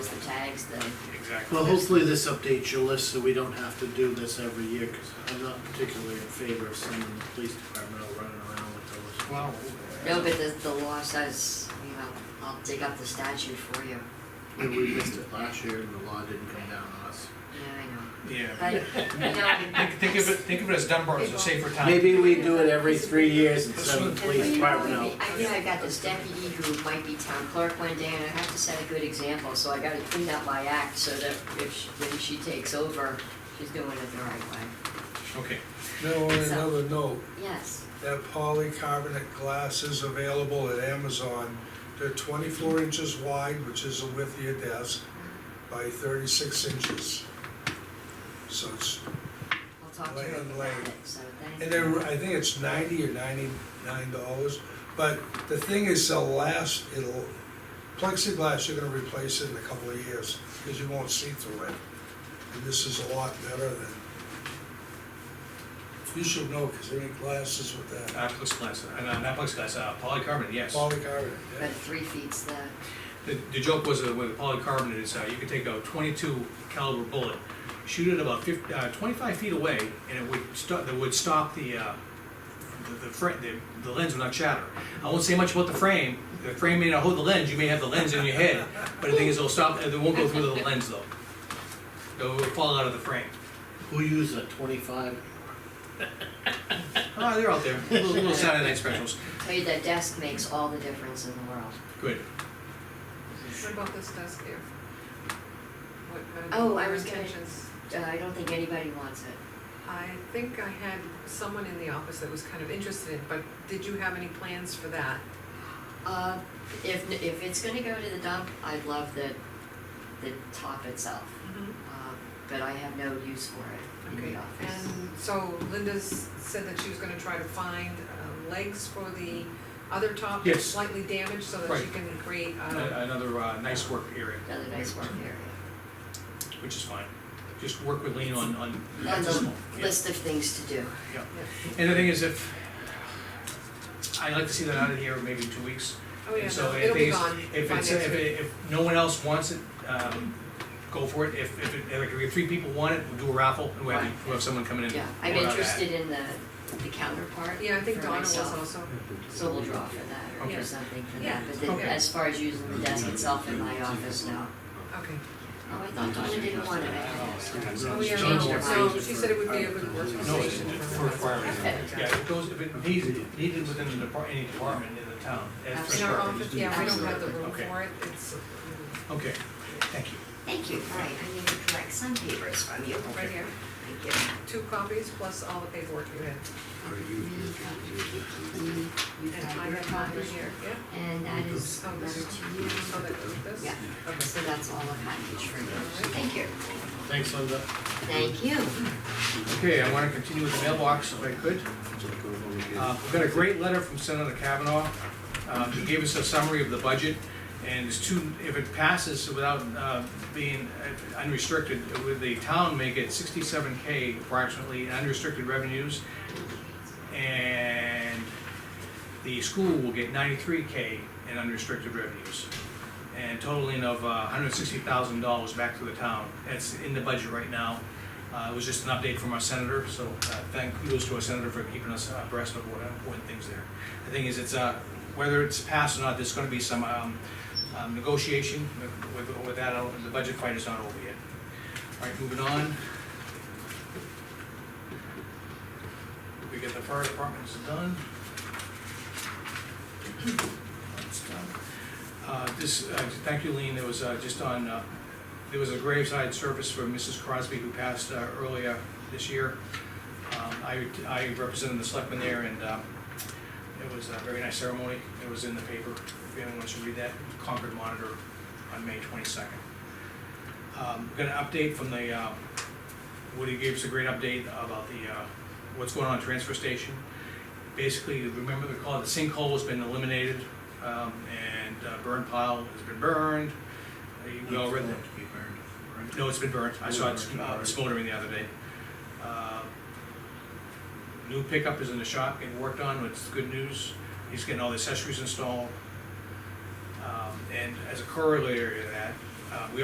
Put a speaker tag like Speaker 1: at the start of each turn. Speaker 1: tags, the,
Speaker 2: Exactly.
Speaker 3: Well, hopefully this updates your list, so we don't have to do this every year, because I'm not particularly in favor of sending the police department out running around with those.
Speaker 2: Well,
Speaker 1: no, but the, the law says, you know, I'll dig up the statute for you.
Speaker 3: And we missed it last year, and the law didn't come down on us.
Speaker 1: Yeah,
Speaker 2: yeah.
Speaker 1: I know. But, you know,
Speaker 2: Think, think of it, think of it as Dunbar as a safer town.
Speaker 3: Maybe we do it every three years and send the
Speaker 1: Well, you
Speaker 3: police
Speaker 1: know,
Speaker 3: department
Speaker 1: I
Speaker 3: out.
Speaker 1: think- I think I got this deputy who might be town clerk one day, and I have to set a good example, so I gotta clean up my act so that if, she- when she takes over, she's doing it the right way.
Speaker 2: Okay,
Speaker 4: Now, on another note,
Speaker 1: Yes,
Speaker 4: that polycarbonate glass is available at Amazon. They're twenty-four inches wide, which is the width of your desk, by thirty-six inches. So it's,
Speaker 1: I'll talk to
Speaker 4: Lay
Speaker 1: her
Speaker 4: on
Speaker 1: about
Speaker 4: lay.
Speaker 1: it, so thank you.
Speaker 4: and they're, I think it's ninety or ninety-nine dollars. But the thing is, the last, it'll, plexiglass, you're gonna replace it in a couple of years, because you won't see through it. And this is a lot better than, you should know, because they make glasses with that.
Speaker 2: Naplex glass, uh, not Naplex glass, uh, polycarbonate, yes.
Speaker 4: Polycarbonate, yeah.
Speaker 1: But three feet's the,
Speaker 2: The, the joke was that with polycarbonate is, uh, you could take a twenty-two caliber bullet, shoot it about fif, uh, twenty-five feet away, and it would stop, that would stop the, uh, the, the fra the, the lens would not shatter. I won't say much about the frame, the frame may not hold the lens, you may have the lens in your head, but the thing is, it'll stop, it won't go through the lens though. It'll fall out of the frame.
Speaker 3: Who uses a twenty-five?
Speaker 2: Ah, they're out there, little, little Saturday night specials,
Speaker 1: tell you that desk makes all the difference in the world.
Speaker 2: good.
Speaker 5: What about this desk here? What, what
Speaker 1: Oh, I
Speaker 5: are your
Speaker 1: was gonna-
Speaker 5: intentions?
Speaker 1: Uh, I don't think anybody wants it.
Speaker 5: I think I had someone in the office that was kind of interested, in, but did you have any plans for that?
Speaker 1: Uh, if, if it's gonna go to the dump, I'd love the, the top itself,
Speaker 5: Mm-hmm.
Speaker 1: uh, but I have no use for it in
Speaker 5: Okay,
Speaker 1: the office.
Speaker 5: and so Linda's said that she was gonna try to find uh, legs for the other top that's
Speaker 2: Yes.
Speaker 5: slightly damaged so that she
Speaker 2: Right.
Speaker 5: can create,
Speaker 2: Ano-
Speaker 5: uh,
Speaker 2: Another, uh, nice work area,
Speaker 1: Another nice work area.
Speaker 2: which is fine, just work with Lean on, on.
Speaker 1: On the
Speaker 2: small, yeah.
Speaker 1: list of things to do.
Speaker 2: And the thing is, if, I'd like to see that out of here maybe in two weeks.
Speaker 5: oh yeah,
Speaker 2: And so
Speaker 5: no,
Speaker 2: I
Speaker 5: it'll
Speaker 2: think
Speaker 5: be
Speaker 2: it's-
Speaker 5: gone
Speaker 2: If
Speaker 5: by
Speaker 2: it's,
Speaker 5: next
Speaker 2: if,
Speaker 5: week.
Speaker 2: it- if no one else wants it, um, go for it. If, if, it- if, three people want it, we'll do a raffle, and we'll have, we'll have someone coming in.
Speaker 1: Yeah, I'm
Speaker 2: Well, uh,
Speaker 1: interested in the, the counterpart.
Speaker 5: Yeah, I think
Speaker 1: for
Speaker 5: Donna was
Speaker 1: myself,
Speaker 5: also,
Speaker 1: So we'll draw for that or
Speaker 5: Okay.
Speaker 1: do something for
Speaker 5: Yeah.
Speaker 1: that, but then
Speaker 2: Okay.
Speaker 1: as far as using the desk itself in my office, no.
Speaker 5: okay.
Speaker 1: Oh, I thought Donna didn't want it, I asked.
Speaker 5: Oh,
Speaker 3: She
Speaker 5: yeah,
Speaker 3: changed her
Speaker 5: no,
Speaker 3: mind.
Speaker 5: she said it would be a good
Speaker 2: No, it's
Speaker 5: conversation.
Speaker 2: for firemen.
Speaker 1: Okay.
Speaker 2: Yeah, it goes, if it needs, needed within the depart, any department in the town. as for
Speaker 5: In our
Speaker 2: sure.
Speaker 5: office, yeah, we don't have the room
Speaker 2: Okay.
Speaker 5: for it, it's
Speaker 2: Okay, thank you.
Speaker 1: Thank you, all right, I need to collect some papers from you.
Speaker 5: right here.
Speaker 1: Thank you.
Speaker 5: Two copies plus all the paperwork you had.
Speaker 1: You
Speaker 5: And I
Speaker 1: got your
Speaker 5: have mine
Speaker 1: copy
Speaker 5: right here, yeah?
Speaker 1: and that is
Speaker 5: Oh,
Speaker 1: letter
Speaker 5: this-
Speaker 1: to you.
Speaker 5: Oh, that was this?
Speaker 1: Yeah,
Speaker 5: Okay.
Speaker 1: so that's all the package for you. Thank you.
Speaker 3: Thanks, Linda.
Speaker 1: Thank you.
Speaker 2: Okay, I wanna continue with the mailbox if I could. Uh, We've got a great letter from Senator Kavanaugh. Uh, He gave us a summary of the budget, and it's two, if it passes without uh, being unrestricted, would the town may get sixty-seven K approximately in unrestricted revenues, and the school will get ninety-three K in unrestricted revenues, and totaling of uh, hundred sixty thousand dollars back to the town. That's in the budget right now. Uh, It was just an update from our senator, so uh, thank kudos to our senator for keeping us abreast of what important things there. The thing is, it's, uh, whether it's passed or not, there's gonna be some um, um, negotiation with, with- with that, uh, the budget fight is not over yet. All right, moving on. We get the fire departments done. That's done. Uh, This, uh, thank you, Lean, there was uh, just on, uh, there was a graveside service for Mrs. Crosby who passed uh, earlier this year. Um, I I represented the selectmen there, and um, it was a very nice ceremony. It was in the paper, if anyone wants to read that, Concord Monitor on May 22nd. Um, Got an update from the, uh, Woody gave us a great update about the, uh, what's going on at transfer station. Basically, remember the call, the sinkhole has been eliminated, um, and uh, burn pile has been burned. Uh, We all read that. No, it's been burnt, I saw it uh, smoldering the other day. Uh, New pickup is in the shop, getting worked on, it's good news, he's getting all the accessories installed. Um, And as a corollary to that, uh, we